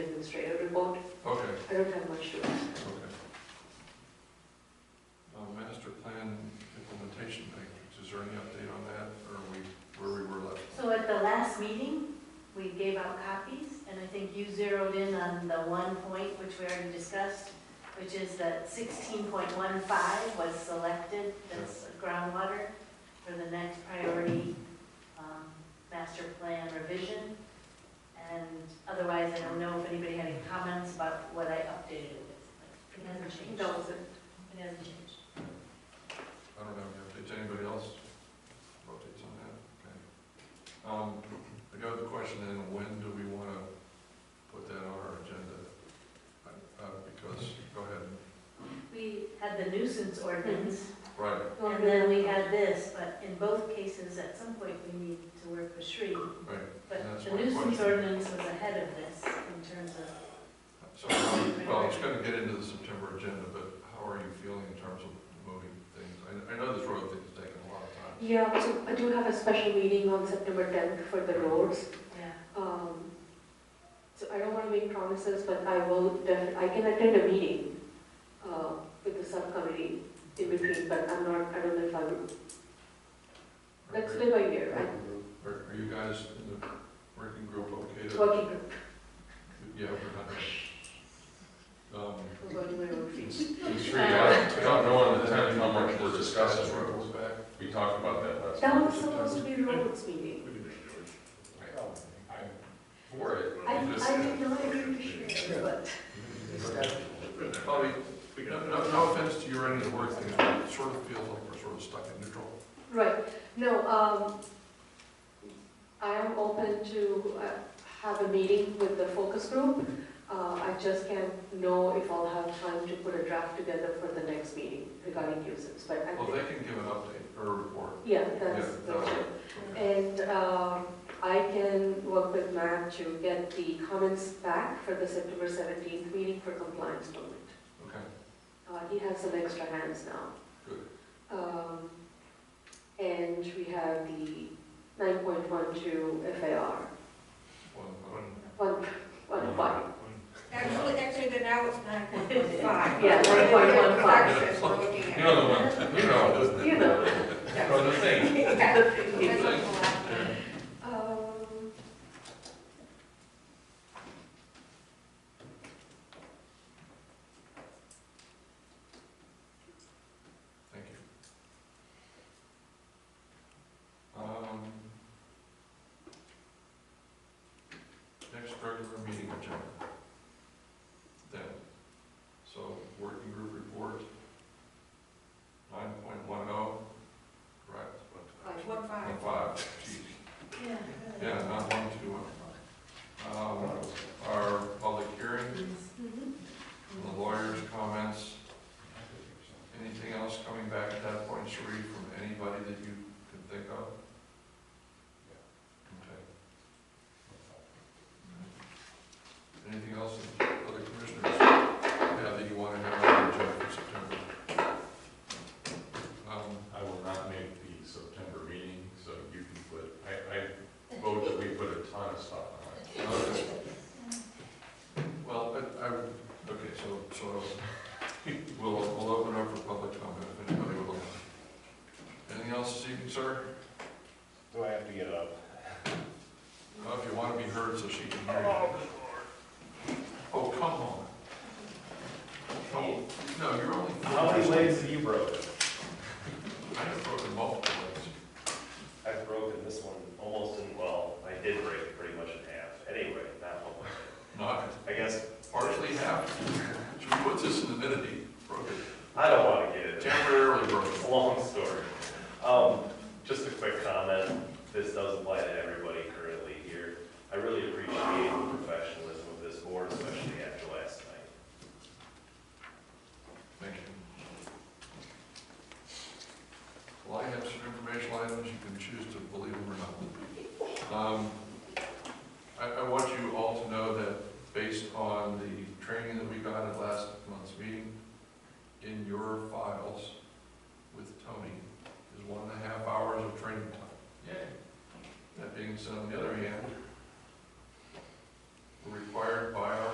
remote, Okay, I don't have much to ask. okay. Uh, Master plan implementation matrix, is there any update on that, or are we, where we were left? So at the last meeting, we gave out copies, and I think you zeroed in on the one point which we already discussed, which is that sixteen point one five was selected as groundwater for the next priority um, master plan revision. And otherwise, I don't know if anybody had any comments about what I updated it with. It hasn't changed. No, it's a- It hasn't changed. I don't have any updates, anybody else? Updates on that, okay. Um, the other question then, when do we wanna put that on our agenda? Uh, because, go ahead, We had the nuisance ordinance, right, And then we had this, but in both cases, at some point, we need to work with Sri. right, But That's the my nuisance question. ordinance was ahead of this in terms of, so, well, it's gonna get into the September agenda, but how are you feeling in terms of moving things? I, I know this road thing's taken a lot of time. Yeah, so I do have a special meeting on September 10th for the roads. yeah. Um, So I don't want to make promises, but I will, def- I can attend a meeting uh, with the subcommittee in between, but I'm not, I don't know if I would, that's Are- been my year, I- Are, are you guys in the working group okay to? working group, Yeah, we're not. Um, I'm going to my own feet. It's really, I don't know at the time how much we're discussing. That's where it goes back. We talked about that last. That time. was supposed to be roads meeting. I'm For it. I, I'm just- I did not agree to share, it, but Bobby, no, no, no offense to your end of the work thing, but it sort of feels like we're sort of stuck in neutral. Right, no, um, I am open to uh, have a meeting with the focus group. Uh, I just can't know if I'll have time to put a draft together for the next meeting regarding nuisance, but I Well, think, they can give an update or a report. yeah, that's, Yeah, that's that's- it. Okay. And um, I can work with Matt to get the comments back for the September seventeenth meeting for compliance moment. Okay, Uh, he has some extra hands now. Good. Um, and we have the nine point one two FAR, one, one. one, one five. Actually, actually, then now it's nine point one five. Yeah, 9.15. we're looking at. You know the one, you know, You know, from the thing. Yeah. the That's what thing. we'll have. Um, Thank you. Um, Next regular meeting agenda. Then, so working group report, nine point one oh, correct? Five. One One five. five, geez. Yeah. yeah, not one, two, one. Um, our public hearing, mhm. the lawyer's comments, anything else coming back at that point, Sheree, from anybody that you can think of? Okay. Anything else that other commissioners have that you want to have on the agenda for September? Um, I will not make the September meeting, so you can put, I, I vote that we put a ton of stuff on it. okay. Well, I, I, would- okay, so, so we'll, we'll open up for public comment if anybody would like. Anything else this evening, sir? Do I have to get up? Well, if you want to be heard so she can hear you. Oh, come on. Oh, no, you're only. How many legs have you broken? I have broken multiple legs. I've broken this one almost in, well, I did break it pretty much in half. Anyway, not almost. Not I guess, partially half. Should we put this in the minute? He broke it. I don't want to get into Temporarily broken. It's a long story. Um, just a quick comment, this does apply to everybody currently here. I really appreciate the professionalism of this board, especially after last night. Thank you. Well, I have some informational items, you can choose to believe them or not. Um, I, I want you all to know that based on the training that we got at last month's meeting, in your files with Tony is one and a half hours of training time. Yeah. That being said, on the other hand, we're required by our